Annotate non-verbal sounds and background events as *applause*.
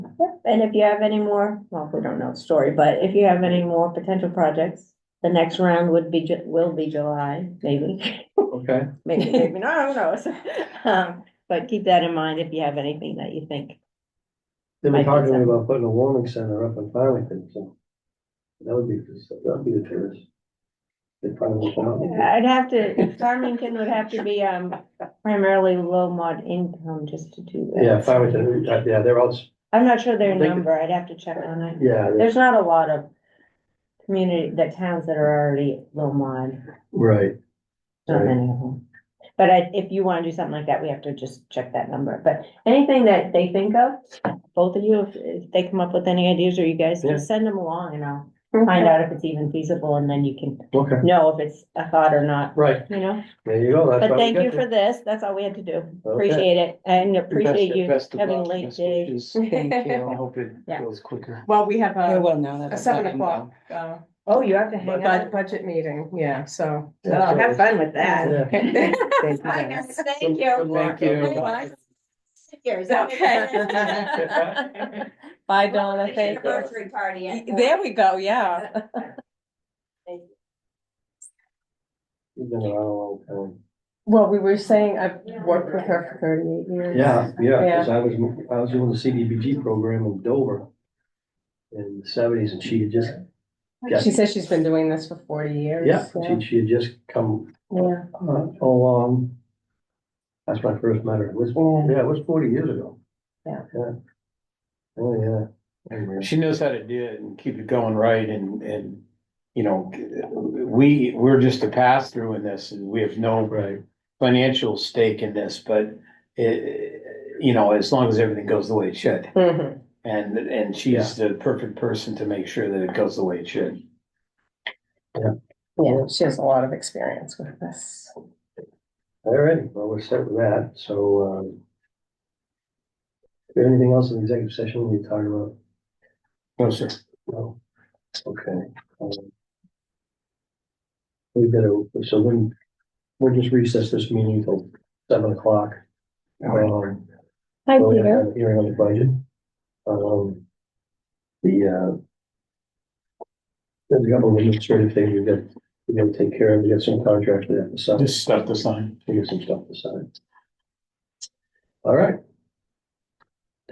And if you have any more, well, we don't know the story, but if you have any more potential projects, the next round would be, Ju- will be July, maybe. *laughs* Okay, Maybe, maybe not, who knows? *laughs* Um, But keep that in mind if you have anything that you think. They were Like talking that. about putting a warming center up in Farmington, so that would be, that'd be the terrace. They probably won't. I'd have to, Farmington would have to be um primarily low mod income just to do that. Yeah, Farmington, uh, yeah, they're all, s- I'm not sure their They could- number, I'd have to check on it. yeah, they're- There's not a lot of community, that towns that are already low mod. right. Not Right. many of them. But I, if you wanna do something like that, we have to just check that number, but anything that they think of, both of you, if- if they come up with any ideas or you guys, Yeah. just send them along and I'll find out if it's even feasible and then you can Okay, know if it's a thought or not, right, you know? there you go. that's But why we thank got you there. for this, that's all we had to do, Okay. appreciate it, and appreciate Best- you best of having a luck. late Best day. wishes. Thank you. I hope it Yeah. goes quicker. Well, we have Yeah, a, well, now that. a I've seven gotten o'clock, uh, Oh, you have to bu- hang out. budget meeting, yeah, so. Yeah, so- fun with Yeah. Thank you, I guys. know, Thank you. Thank Well, you. Here's- Okay. *laughs* Bye, Donna, Appreciate a thank you. Birthday party. at- There we go, yeah. You've been around a long time. Well, we were saying I've worked with her for thirty-eight years. Yeah, yeah, because I was, I was doing the CDBG program in Dover in the seventies and she had just, She says she's been doing this for forty years. yeah, she, she had just come Yeah. uh, along. That's when I first met her. It was, yeah, it was forty years ago. Yeah. Yeah. Oh, yeah. She knows how to do it and keep it going right and, and, you know, we, we're just a pass through in this and we have no Right, financial stake in this, but it, you know, as long as everything goes the way it should. Mhm. And, and she's the perfect person to make sure that it goes the way it should. Yeah, she has a lot of experience with this. all right, well, we're set with that, so, um. Is there anything else in the executive session we need to talk about? No, sir. No, okay. um, We better, so then, we'll just recess this meeting till seven o'clock. Um, Hi, we're gonna Peter. have a Hearing on the budget. Um, the, uh. There's a couple of administrative things we've got, we gotta take care of, we got some contracts we have to sign. Just stuff to sign. We got some stuff to sign. All right,